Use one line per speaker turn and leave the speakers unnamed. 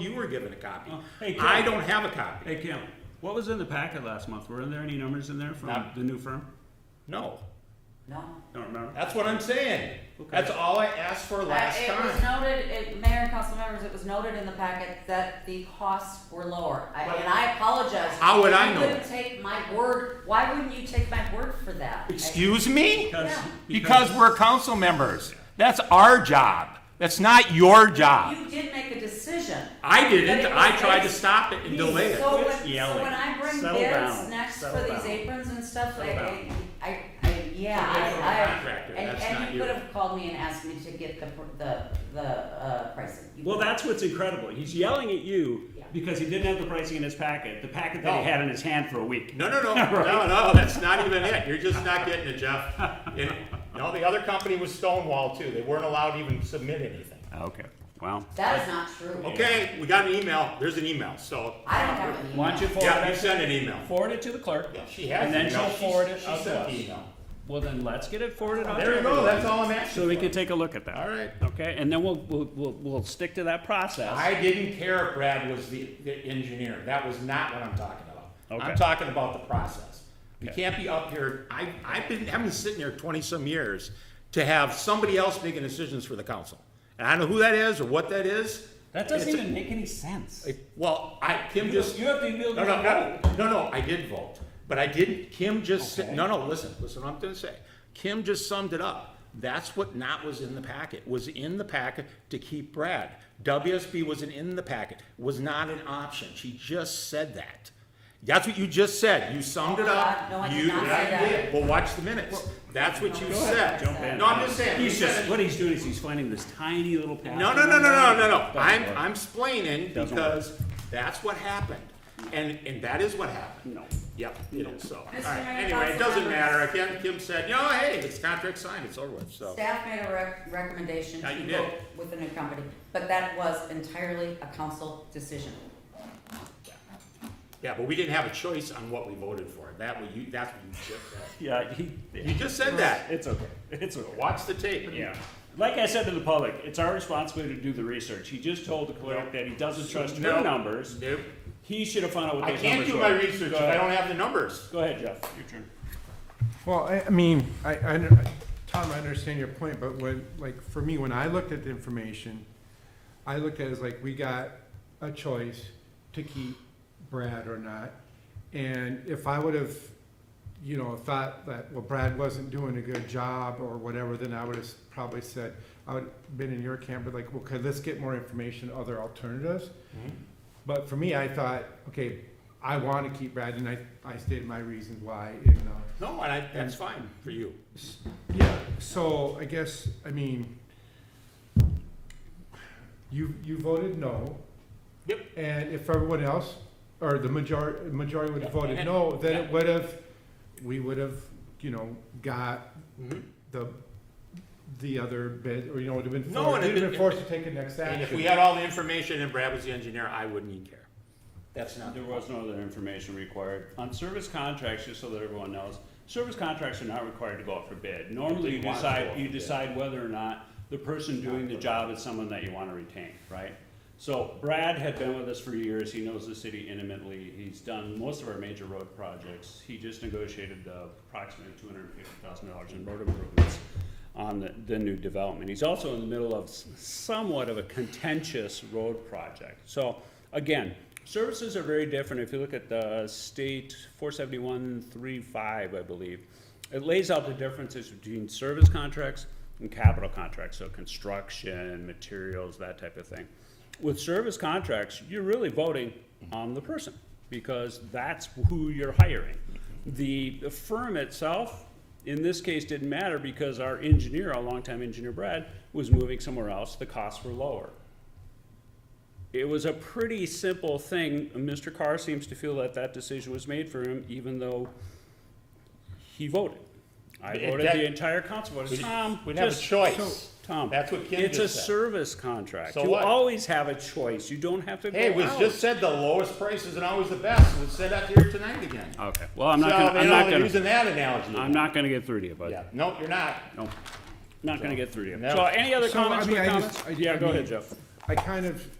you were given a copy.
Oh, hey, Ken.
I don't have a copy.
Hey, Kim, what was in the packet last month? Were there any numbers in there from
Not-
the new firm?
No,
No.
Don't remember.
that's what I'm saying. That's all I asked for
Uh,
last
it was
time.
noted, it, mayor and council members, it was noted in the packet that the costs were lower. I, and I apologize.
How would I
You
know
couldn't
that?
take my word. Why wouldn't you take my word for that?
Excuse me?
Yeah.
Because we're council members. That's our job. That's not your job.
You did make a decision.
I
But
didn't.
it
I
was
tried to
based-
stop it and delay it.
So when,
Quit
so
yelling.
when I bring
Settle
bids
down.
next for
Settle
these
down.
aprons and stuff,
Settle
I, I, I, yeah,
You're from a
I, I,
contractor,
and,
that's not
and you
you.
could have called me and asked me to get the, pr- the, the, uh, pricing. You
Well,
could-
that's what's incredible. He's yelling at you
Yeah.
because he didn't have the pricing in his packet, the packet that he
No.
had in his hand for a week.
No, no, no, no, no, that's not even it. You're just not getting it, Jeff. And, no, the other company was Stonewall too. They weren't allowed to even submit anything.
Okay, wow.
That is not true.
Okay, we got an email. There's an email, so.
I don't have an email.
Why don't you forward
Yeah, you
it,
sent an email.
forward it to the clerk?
She has.
And then
an email.
she'll
She-
forward it
she
out to
sent the
us.
email.
Well, then let's get it forwarded on to
There you go,
everyone.
that's all I'm asking.
So we
for.
could take a look at that.
All right.
Okay, and then we'll, we'll, we'll, we'll stick to that process.
I didn't care if Brad was the, the engineer. That was not what I'm talking about.
Okay.
I'm talking about the process. We
Okay.
can't be up here, I, I've been, I've been sitting here twenty-some years to have somebody else making decisions for the council. And I don't know who that is or what that is.
That doesn't
It's-
even make any sense.
it- Well, I, Kim just.
You have to be able
No,
to
no,
vote.
no, no, no, I did vote, but I didn't, Kim just, said-
Okay.
no, no, listen, listen what I'm gonna say. Kim just summed it up. That's what not was in the packet, was in the packet to keep Brad. WSB wasn't in the packet, was not an option. She just said that. That's what you just said. You summed it up.
No, I did
You-
not say
Yeah, you
that.
did. Well, watch the minutes. That's what you said.
Jump in.
No, I'm just saying. you
He's
said
just,
it.
what he's doing is he's finding this tiny little packet.
No, no, no, no, no, no, no.
Doesn't
I'm,
work.
I'm explaining
Doesn't work.
because that's what happened. And, and that is what happened.
No.
Yep, you know, so, all
Mr.
right,
Mayor,
anyway, it
Council
doesn't
members.
matter, Kim, Kim said, no, hey, it's contract signed, it's over with, so.
Staff made a rec- recommendation
Yeah,
to
you
go
did.
with a new company, but that was entirely a council decision.
Yeah, but we didn't have a choice on what we voted for, that was, you, that's what you just said.
Yeah, he,
You just said that,
it's okay, it's okay.
watch the tape.
Yeah. Like I said to the public, it's our responsibility to do the research. He just told the clerk that he doesn't trust her
No.
numbers.
Nope,
He should have found out what
I
those numbers were.
can't do my research
Go
if I
ahead.
don't have the numbers.
Go ahead, Jeff, your turn.
Well, I, I mean, I, I, under- Tom, I understand your point, but when, like, for me, when I looked at the information, I looked at it as like, we got a choice to keep Brad or not. And if I would have, you know, thought that, well, Brad wasn't doing a good job or whatever, then I would have probably said, I would have been in your camp, but like, okay, let's get more information, other alternatives. But for me, I thought, okay, I want to keep Brad, and I, I stated my reasons why, and, uh,
No, and I, that's fine for you.
yeah, so I guess, I mean, you, you voted no.
Yep.
And if everyone else, or the majority, majority would have
Yeah,
voted
and-
no, then it
yeah.
would have, we would have, you know, got
Mhm.
the, the other bid, or, you know, would have been
No,
forced,
and
we'd
it-
have been forced to take a next
And if we
action.
had all the information and Brad was the engineer, I wouldn't even care. That's not.
There was no other information required. On service contracts, just so that everyone knows, service contracts are not required to go out for bid. Normally, you
They want to go out
decide,
for
you
bid.
decide whether or not the person doing the job is someone that you wanna retain, right? So Brad had been with us for years, he knows the city intimately, he's done most of our major road projects. He just negotiated the approximately two hundred and fifty thousand dollars in road improvements on the, the new development. He's also in the middle of s- somewhat of a contentious road project. So, again, services are very different. If you look at the state four seventy-one, three, five, I believe, it lays out the differences between service contracts and capital contracts, so construction, materials, that type of thing. With service contracts, you're really voting on the person, because that's who you're hiring. The the firm itself, in this case didn't matter because our engineer, our longtime engineer Brad, was moving somewhere else, the costs were lower. It was a pretty simple thing, Mr. Carr seems to feel that that decision was made for him, even though he voted. I
But it-
voted,
that-
the entire council voted,
We'd-
Tom,
we'd have a
just.
choice.
Tom.
That's what Kim
It's a
just said.
service contract,
So
you
what?
always have a choice, you don't have to go out.
Hey, it was just said the lowest price isn't always the best. It was said out here tonight again.
Okay, well, I'm not
so,
gonna,
you
I'm
know,
not
they're
gonna,
using that analogy.
I'm not gonna get through to you, bud.
Yeah. Nope, you're not.
Nope. Not gonna get through to you.
No.
So any other
So, I
comments,
mean,
quick
I
comments?
just- I-
Yeah,
I
go ahead,
mean-
Jeff.
I kind of,